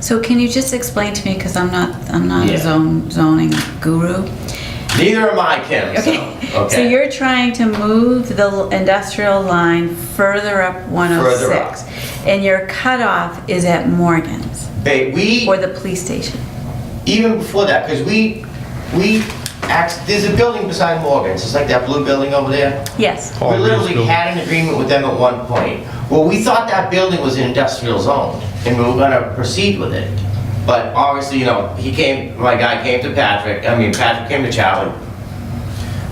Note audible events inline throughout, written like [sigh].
So can you just explain to me, because I'm not, I'm not a Yeah. zone, zoning guru. Neither am I, Kim, so, Okay, [laughs] so you're trying to move the industrial line further up 106. And your cutoff is at Morgan's Ba- we, or the police station. even before that, because we, we, act- there's a building beside Morgan's, it's like that blue building over there. Yes, We Paul Reed's literally building. had an agreement with them at one point. Well, we thought that building was an industrial zone, and we were gonna proceed with it. But obviously, you know, he came, my guy came to Patrick, I mean, Patrick came to Charlie.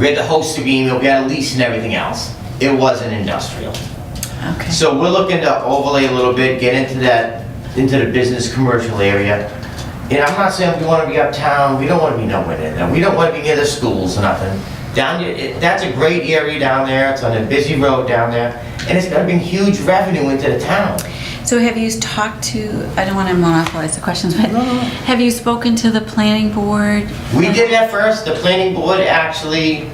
We had the host agreement, we had a lease and everything else. It wasn't industrial. okay. So we're looking to overlay a little bit, get into that, into the business commercial area. And I'm not saying we wanna be uptown, we don't wanna be nowhere near there, we don't wanna be near the schools or nothing. Down, there- it- that's a great area down there, it's on a busy road down there, and it's gonna bring huge revenue into the town. So have you talked to, I don't want to monopolize the questions, but have you spoken to the planning board? We did that first, the planning board actually,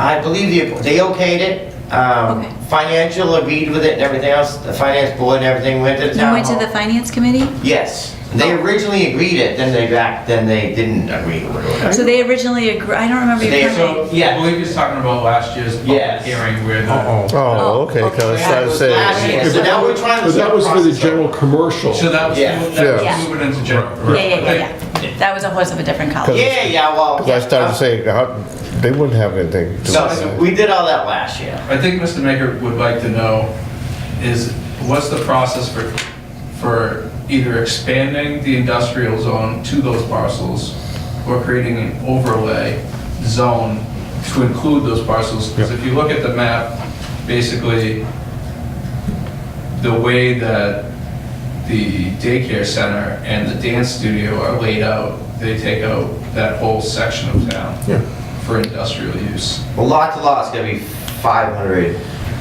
I believe they- they okayed it. Um, Okay. Financial agreed with it and everything else, the finance board and everything went to the You town went to hall. the finance committee? Yes, they originally agreed it, then they back, then they didn't agree with it. So they originally agrri, I don't remember your They- permit. I Yeah. believe he's talking about last year's public Yes. hearing where the, Uh-oh. Oh, Oh, okay, okay. because I was Last saying, year, so now we're trying to. But that was for the general commercial. so that was, Yeah. that Yeah. was moving into general. Yeah, yeah, yeah, yeah. That was a horse of a different color. Yeah, yeah, well. I started saying, how- they wouldn't have anything to So, so do. we did all that last year. I think Mr. Maker would like to know is, what's the process for, for either expanding the industrial zone to those parcels or creating an overlay zone to include those parcels? Because if you look at the map, basically, the way that the daycare center and the dance studio are laid out, they take out that whole section of Yeah. town for industrial use. Well, lot to lot is gonna be five hundred.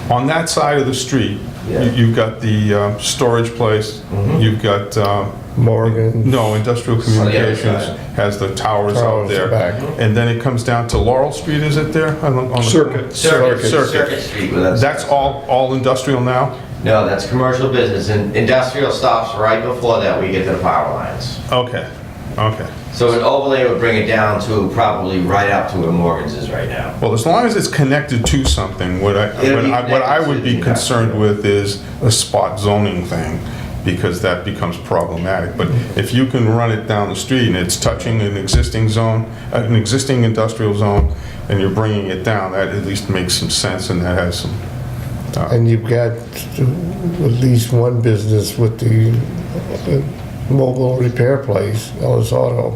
On that side of the street, Yeah. Mm-hmm. you- you've got the uh, storage place, you've got, um, Morgan. no, industrial the other communications side. has the towers out Towers there. back. Mm-hmm. And then it comes down to Laurel Street, is it there? On the- on the- Circuit. Circuit, Circuit circuit. Street with us. That's all, all industrial now? No, that's commercial business and industrial stops right before that we get to the power lines. Okay, okay. So an overlay would bring it down to probably right up to where Morgan's is right now. Well, as long as it's connected to something, what I, It'll what be I, what I connected to would be the concerned with is a spot zoning thing, because that becomes problematic. But if you can run it down the street and it's touching an existing zone, an existing industrial zone, and you're bringing it down, that at least makes some sense and that has some, And you've got at least one business with the uh, mobile repair place, Ellis Auto.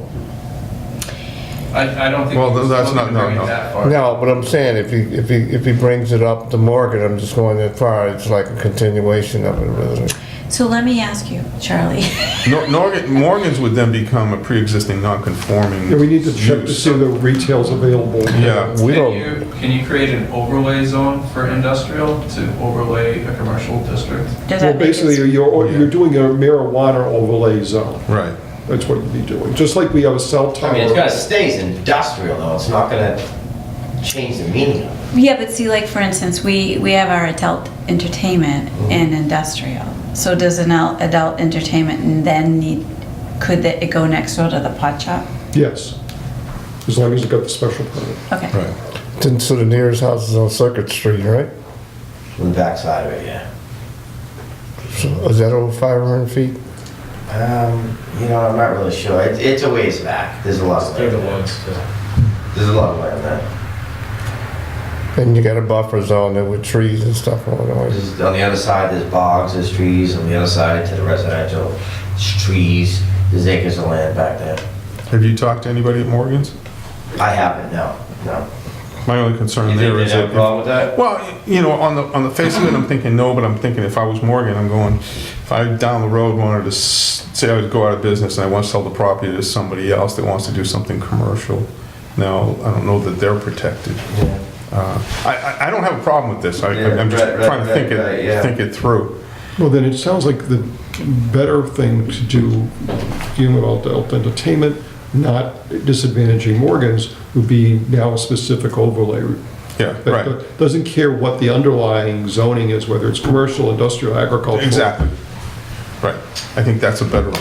I, I don't think. Well, he was that's looking to not- no, bring it no. that far. No, but I'm saying, if he, if he, if he brings it up to Morgan, I'm just going that far, it's like a continuation of it, really. So let me ask you, Charlie. [laughs] Nor- Norgan- Morgan's would then become a pre-existing non-conforming. Yeah, we need to check to use. see the retail's available. Yeah, We Can don't, you, can you create an overlay zone for industrial to overlay a commercial district? Does Well, that make it- basically, you're, you're doing a marijuana overlay zone. right. That's what you'd be doing, just like we have a cell tower. I mean, it's gonna stay as industrial though, it's not gonna change the meaning of it. Yeah, but see, like, for instance, we, we have our adult entertainment and industrial. So does an al- adult entertainment then need, could that- it go next door to the pot shop? Yes, as long as you got the special permit. Okay. Right. Then, so the nearest house is on Circuit Street, right? From the backside of it, yeah. So is that over 500 feet? Um, you know, I'm not really sure. It, it's a ways back. There's a lot of land. there. There's a lot of land there. And you got a buffer zone there with trees and stuff going on. There's, on the other side, there's bogs, there's trees. On the other side, to the residential, there's trees. There's acres of land back there. Have you talked to anybody at Morgan's? I haven't. No, no. My only concern there is that if- with that? Well, you know, on the, on the face of it, I'm thinking no, but I'm thinking if I was Morgan, I'm going, if I down the road wanted to, s- say I would go out of business and I want to sell the property to somebody else that wants to do something commercial, now, I don't know that they're protected. Yeah. Uh, I, I, I don't have a problem with this, I, Yeah, I'm just right, right, trying to think right, right, yeah. it, think it through. Well, then it sounds like the better thing to do, dealing with adult entertainment, not disadvantaging Morgan's, would be now a specific overlay Yeah, that right, Doesn't care what the underlying zoning is, whether it's commercial, industrial, agricultural. exactly, right, I think that's a better